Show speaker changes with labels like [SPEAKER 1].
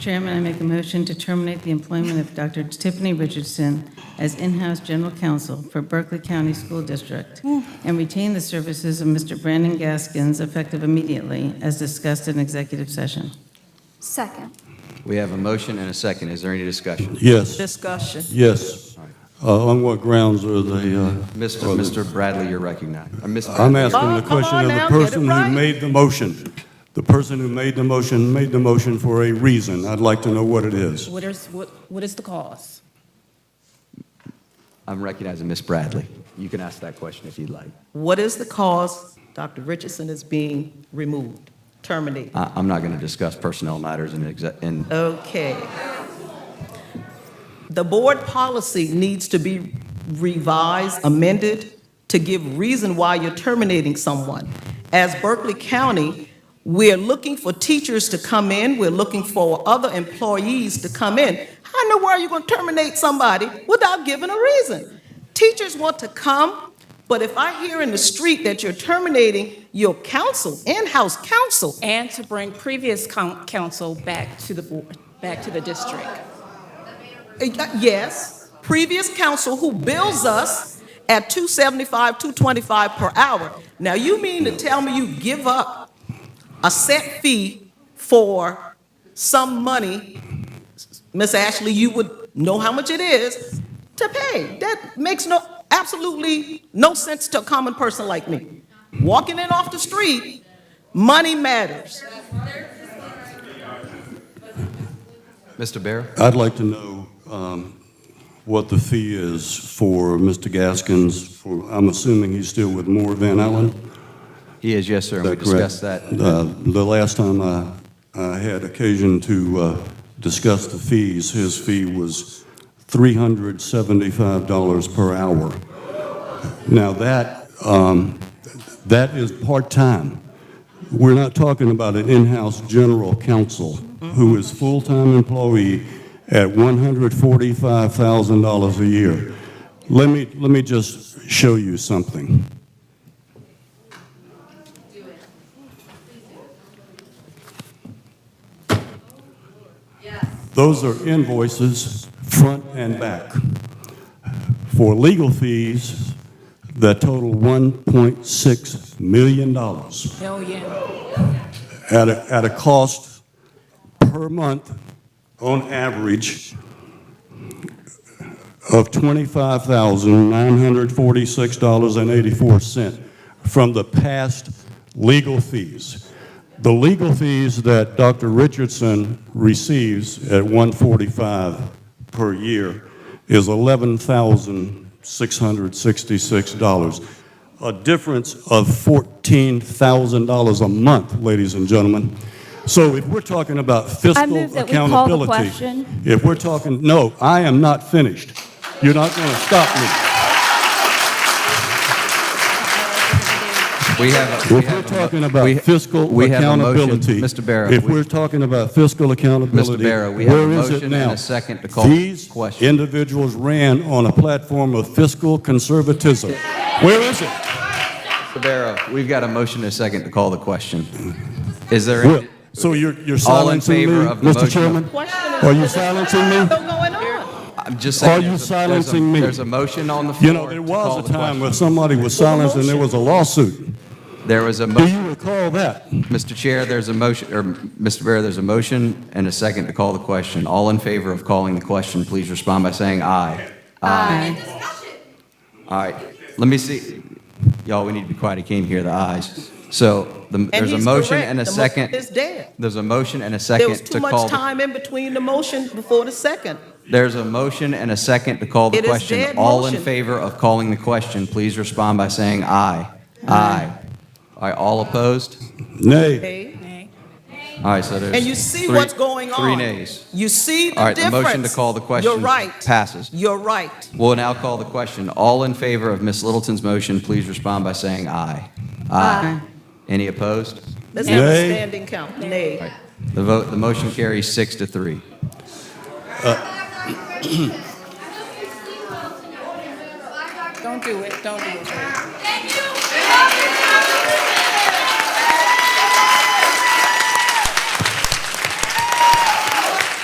[SPEAKER 1] Chairman, I make a motion to terminate the employment of Dr. Tiffany Richardson as in-house general counsel for Berkeley County School District and retain the services of Mr. Brandon Gaskins effective immediately, as discussed in executive session.
[SPEAKER 2] Second.
[SPEAKER 3] We have a motion and a second. Is there any discussion?
[SPEAKER 4] Yes,
[SPEAKER 5] Discussion.
[SPEAKER 4] yes. Uh, On what grounds are they? uh,
[SPEAKER 3] Mr.
[SPEAKER 4] are they-
[SPEAKER 3] Mr. Bradley, you're recognized. Or Ms.
[SPEAKER 4] I'm
[SPEAKER 3] Bradley, you're-
[SPEAKER 4] asking the
[SPEAKER 5] Come on
[SPEAKER 4] question of
[SPEAKER 5] now,
[SPEAKER 4] the
[SPEAKER 5] get it
[SPEAKER 4] person who
[SPEAKER 5] right.
[SPEAKER 4] made the motion. The person who made the motion made the motion for a reason. I'd like to know what it is.
[SPEAKER 6] What is, what, what is the cause?
[SPEAKER 3] I'm recognizing Ms. Bradley. You can ask that question if you'd like.
[SPEAKER 5] What is the cause Dr. Richardson is being removed, terminated?
[SPEAKER 3] I- I'm not going to discuss personnel matters in exec, in
[SPEAKER 5] Okay. The board policy needs to be revised, amended, to give reason why you're terminating someone. As Berkeley County, we're looking for teachers to come in, we're looking for other employees to come in. How in the world are you going to terminate somebody without giving a reason? Teachers want to come, but if I hear in the street that you're terminating your counsel, in-house counsel,
[SPEAKER 6] And to bring previous coun- council back to the board, back to the district.
[SPEAKER 5] Uh, Yes, previous council who bills us at 275, 225 per hour. Now, you mean to tell me you give up a set fee for some money, Miss Ashley, you would know how much it is, to pay? That makes no, absolutely no sense to a common person like me. Walking in off the street, money matters.
[SPEAKER 3] Mr. Bear?
[SPEAKER 4] I'd like to know um, what the fee is for Mr. Gaskins, for, I'm assuming he's still with Moore Van Allen?
[SPEAKER 3] He is, yes, sir, and we
[SPEAKER 4] Is that correct?
[SPEAKER 3] discussed that.
[SPEAKER 4] Uh, The last time I, I had occasion to uh, discuss the fees, his fee was $375 per hour. Now, that, um, that is part-time. We're not talking about an in-house general counsel who is full-time employee at $145,000 a year. Let me, let me just show you something. Those are invoices, front and back, for legal fees that total $1.6 million at
[SPEAKER 6] Hell yeah.
[SPEAKER 4] a, at a cost per month, on average, of $25,946.84 from the past legal fees. The legal fees that Dr. Richardson receives at 145 per year is $11,666, a difference of $14,000 a month, ladies and gentlemen. So if we're talking about fiscal accountability...
[SPEAKER 2] move that we call the question.
[SPEAKER 4] If we're talking, no, I am not finished. You're not going to stop me.
[SPEAKER 3] We have, a- we
[SPEAKER 4] If we're
[SPEAKER 3] have, a
[SPEAKER 4] talking
[SPEAKER 3] mo-
[SPEAKER 4] about
[SPEAKER 3] we-
[SPEAKER 4] fiscal
[SPEAKER 3] we have a motion.
[SPEAKER 4] accountability.
[SPEAKER 3] Mr. Barrow,
[SPEAKER 4] If
[SPEAKER 3] we-
[SPEAKER 4] we're talking about fiscal accountability.
[SPEAKER 3] Mr. Barrow, we have a
[SPEAKER 4] where is it
[SPEAKER 3] motion and
[SPEAKER 4] now?
[SPEAKER 3] a second to call
[SPEAKER 4] These
[SPEAKER 3] question.
[SPEAKER 4] individuals ran on a platform of fiscal conservatism. Where is it?
[SPEAKER 3] Mr. Barrow, we've got a motion and a second to call the question. Is there?
[SPEAKER 4] Well, So you're you're
[SPEAKER 3] All in
[SPEAKER 4] silencing me,
[SPEAKER 3] favor of the motion
[SPEAKER 4] Mr.
[SPEAKER 3] of-
[SPEAKER 4] Chairman?
[SPEAKER 5] Question is-
[SPEAKER 4] Are you silencing me?
[SPEAKER 5] What's going on?
[SPEAKER 3] I'm just saying.
[SPEAKER 4] Are
[SPEAKER 3] there's
[SPEAKER 4] you
[SPEAKER 3] a- there's a-
[SPEAKER 4] silencing me?
[SPEAKER 3] There's a motion on the floor.
[SPEAKER 4] You know, there
[SPEAKER 3] to call
[SPEAKER 4] was
[SPEAKER 3] the
[SPEAKER 4] a time
[SPEAKER 3] question.
[SPEAKER 4] when somebody was silenced and there was a lawsuit.
[SPEAKER 3] There was a,
[SPEAKER 4] Do
[SPEAKER 3] mo-
[SPEAKER 4] you recall that?
[SPEAKER 3] Mr. Chair, there's a motion, or Mr. Barrow, there's a motion and a second to call the question. All in favor of calling the question, please respond by saying aye.
[SPEAKER 1] Aye.
[SPEAKER 3] All right, let me see, y'all, we need to be quiet, I can't hear the ayes. So the-
[SPEAKER 5] And
[SPEAKER 3] there's a
[SPEAKER 5] he's
[SPEAKER 3] motion
[SPEAKER 5] correct.
[SPEAKER 3] and a
[SPEAKER 5] The motion
[SPEAKER 3] second.
[SPEAKER 5] is dead.
[SPEAKER 3] There's a motion and a
[SPEAKER 5] There
[SPEAKER 3] second
[SPEAKER 5] was too
[SPEAKER 3] to call.
[SPEAKER 5] much
[SPEAKER 3] the-
[SPEAKER 5] time in between the motion before the second.
[SPEAKER 3] There's a motion and a second to call the
[SPEAKER 5] It is
[SPEAKER 3] question.
[SPEAKER 5] dead
[SPEAKER 3] All in
[SPEAKER 5] motion.
[SPEAKER 3] favor of calling the question, please respond by saying aye. Aye. All right, all opposed?
[SPEAKER 4] Nay.
[SPEAKER 5] Okay?
[SPEAKER 3] All right, so there's.
[SPEAKER 5] And you see
[SPEAKER 3] three-
[SPEAKER 5] what's going on.
[SPEAKER 3] Three nays.
[SPEAKER 5] You see the
[SPEAKER 3] All right, the
[SPEAKER 5] difference.
[SPEAKER 3] motion to call the
[SPEAKER 5] You're
[SPEAKER 3] question
[SPEAKER 5] right.
[SPEAKER 3] passes.
[SPEAKER 5] You're right.
[SPEAKER 3] We'll now call the question. All in favor of Ms. Littleton's motion, please respond by saying aye. Aye. Any opposed?
[SPEAKER 5] Let's have a
[SPEAKER 4] Nay.
[SPEAKER 5] standing count. Nay.
[SPEAKER 3] The vote, the motion carries six to three.
[SPEAKER 6] Don't do it, don't do it.
[SPEAKER 7] Thank you.